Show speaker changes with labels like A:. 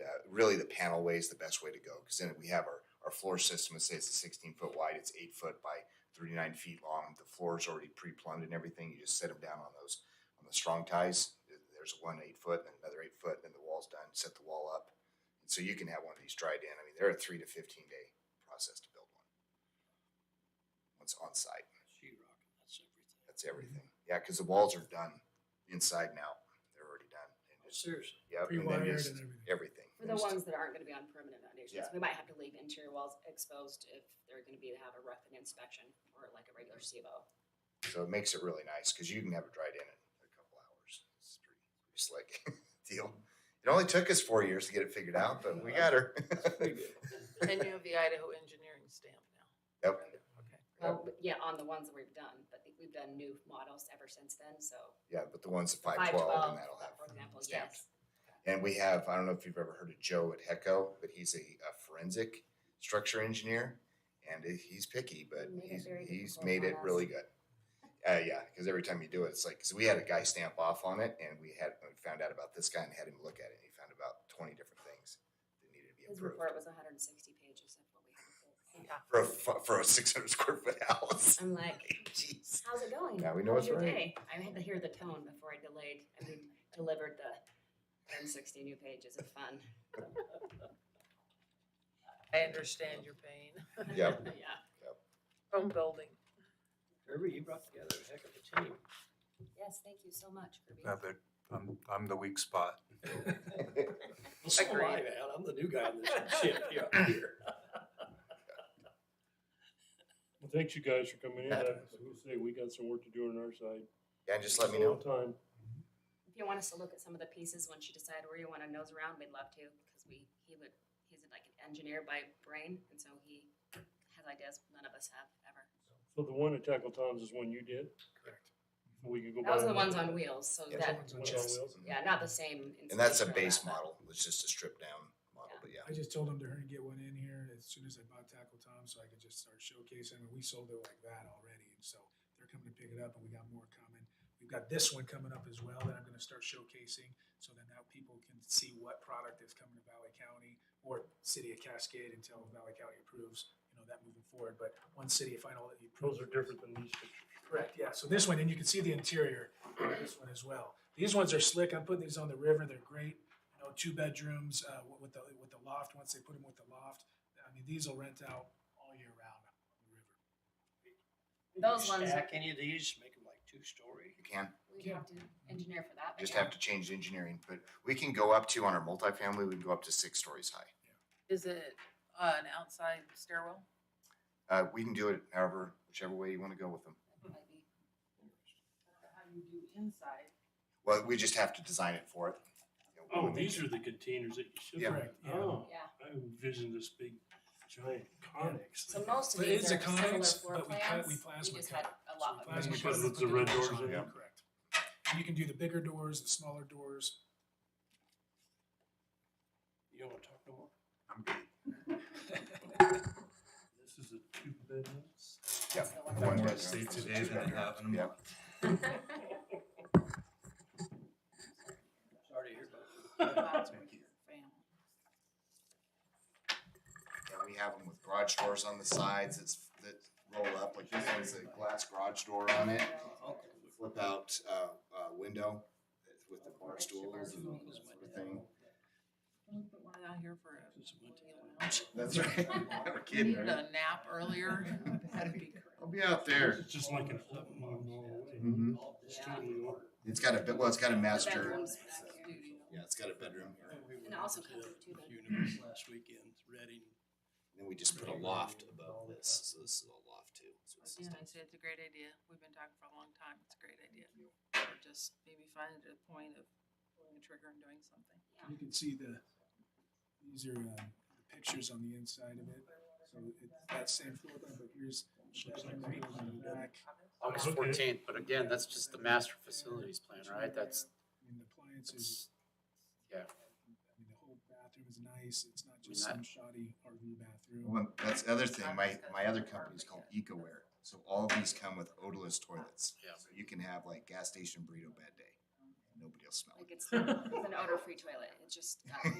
A: uh, really the panel way is the best way to go, because then we have our, our floor system, it says it's sixteen foot wide, it's eight foot by thirty-nine feet long, the floor is already pre-plumbed and everything, you just set them down on those, on the strong ties, there's one eight foot, and another eight foot, and then the wall's done, set the wall up. And so you can have one of these dried in, I mean, they're a three to fifteen day process to build one. Once on site,
B: Sheet rock, that's everything.
A: that's everything, yeah, because the walls are done inside and out, they're already done, and just,
B: Oh, Seriously,
A: yep, and then
C: Pre-wired and
A: just everything.
C: everything.
D: For the
A: Just-
D: ones that aren't gonna be on permanent foundations,
A: Yeah.
D: we might have to leave interior walls exposed if they're gonna be, have a rough inspection or like a regular SIBO.
A: So it makes it really nice because you can have it dried in in a couple hours. It's pretty, pretty slick deal. It only took us four years to get it figured out, but we got her.
B: that's pretty good.
E: And you have the Idaho engineering stamp
A: yep.
E: now. Okay.
D: Well, but yeah, on the ones that we've done, but we've done new models ever since then, so
A: Yeah, but the one's at
D: five
A: 512,
D: twelve,
A: and that'll have.
D: for example,
A: stamped.
D: yes.
A: And we have, I don't know if you've ever heard of Joe at HECO, but he's a, a forensic structure engineer and he- he's picky, but
D: He made it
A: he's,
D: very
A: he's
D: difficult
A: made
D: on
A: it
D: us.
A: really good. Uh, yeah, because every time you do it, it's like, 'cause we had a guy stamp off on it and we had we found out about this guy and had him look at it and he found about 20 different things that needed to be
D: His
A: improved.
D: report was hundred and sixty pages of what we had to fix.
E: Yeah.
A: for a, fu- for a 600 square foot house.
D: I'm like,
A: Jeez.
D: how's it going?
A: Yeah, we know
D: How
A: it's
D: was your
A: right.
D: day?" I had to hear the tone before I delayed, I mean, delivered the hundred and sixty new pages of fun.
E: I understand your pain
A: Yep.
D: Yeah.
E: from building.
B: Kirby, you brought together a heck of a team.
D: Yes, thank you so much, Kirby.
F: Yeah, that, I'm, I'm the weak spot.
B: Well, so am I,
E: Agreed.
B: man. I'm the new guy in this ship here. here.
G: Well, thanks you guys for coming in.
A: Uh,
G: I was gonna say, we got some work to do on our side.
A: Yeah, just let me
G: It's a
A: know.
G: long Time.
D: If you want us to look at some of the pieces once you decide where you want to nose around, we'd love to because we he would he's like an engineer by brain, and so he has ideas none of us have ever.
G: So the one at Tackle Tom's is one you did?
A: Correct.
G: So we can go.
D: Those
G: buy
D: are the
G: one.
D: ones on wheels, so
A: Yeah, the
D: that
A: ones
G: One on
A: Just-
G: wheels?
D: yeah, not the same.
A: And that's a
D: installation or
A: base
D: that,
A: model. It's just a stripped down model, but yeah.
C: I just told him to hurry and get one in here as soon as I bought Tackle Tom, so I could just start showcasing. And we sold it like that already, and so they're coming to pick it up, and we got more coming. We've got this one coming up as well that I'm going to start showcasing, so then now people can see what product is coming to Valley County or City of Cascade until Valley County approves. You know that moving forward, but one city final that you approve.
G: Those are different than these pictures.
C: Correct, yeah. So this one, and you can see the interior of this one as well. These ones are slick. I'm putting these on the river. They're great. You know, two bedrooms uh, wi- with the with the loft. Once they put them with the loft, I mean, these will rent out all year round on the river.
D: Those
B: You
D: ones are-
B: Stack any of these, make them like two-story?
A: You can.
D: We'd have to engineer for that. but
A: Just
D: yeah.
A: have to change the engineering, but we can go up to on our multifamily, we can go up to six stories high.
E: Is it uh, an outside stairwell?
A: Uh, we can do it however, whichever way you want to go with them.
D: That might be-
E: How you do inside?
A: Well, we just have to design it for it. You know,
G: Oh,
A: we
G: these
A: can-
G: are the containers that you should.
A: Yeah.
C: Correct, yeah.
G: Oh,
D: Yeah.
G: I envisioned this big giant conex.
D: So
G: thing.
D: most of
C: But
D: these
C: it's
D: are
C: a
D: similar
C: conex,
D: floor
C: but we
D: plans.
C: cut, we plasma
D: just had
C: cut.
D: a lot of.
C: So we plasma
G: We
C: cut
G: put
C: it
G: with
C: with
G: the red
C: doors
G: doors
C: on
G: in.
C: it, Correct. And you can do the bigger doors, the smaller doors.
B: You don't want to talk no more?
F: I'm good.
G: This is a two bedroom.
A: Yeah.
D: So
A: one
D: one
F: One
A: bedroom
F: more state
A: versus
F: today
A: two
F: than I
A: bedroom.
F: have in a month.
A: Yep.
B: Sorry to hear about it.
E: That's where your family.
A: Yeah, we have them with garage doors on the sides, it's, that roll up, like this one's a glass garage door on it. Flip out, uh, uh, window with the bar stools and all that sort of thing.
E: Can we put one out here for a?
B: This is what-
A: That's right, we're
E: We
A: kidding,
E: needed
A: right?
E: a nap earlier. That'd be great.
A: I'll be out there.
G: It's just like an up normal.
A: Mhm.
G: It's totally ordered.
A: It's got a, bit- well, it's got a
D: The
A: master,
D: bedrooms back here.
A: yeah, it's got a bedroom here. And
D: And also comes with two bedrooms.
B: Universe last weekend, Reading.
A: Then we just put a loft above this, so this is a loft too. So it's
E: Yeah,
A: just-
E: I said it's a great idea. We've been talking for a long time. It's a great idea. Or just maybe find a point of pulling a trigger and doing something.
C: You can see the, these are uh, pictures on the inside of it. So it's that same floor plan, but here's.
B: Looks like great.
C: on the back.
H: August
G: Okay.
H: fourteenth, but again, that's just the master facilities plan, right? That's,
C: And the appliances.
H: that's- yeah.
C: I mean, the whole bathroom is nice. It's not
H: mean,
C: just
H: that-
C: some shoddy RV bathroom.
A: Well, that's the other thing, my, my other company is called EcoWare, so all these come with odorless toilets.
H: Yeah.
A: So You can have like gas station burrito bad day, nobody will smell it.
D: Like it's, it's an odor-free toilet. It just got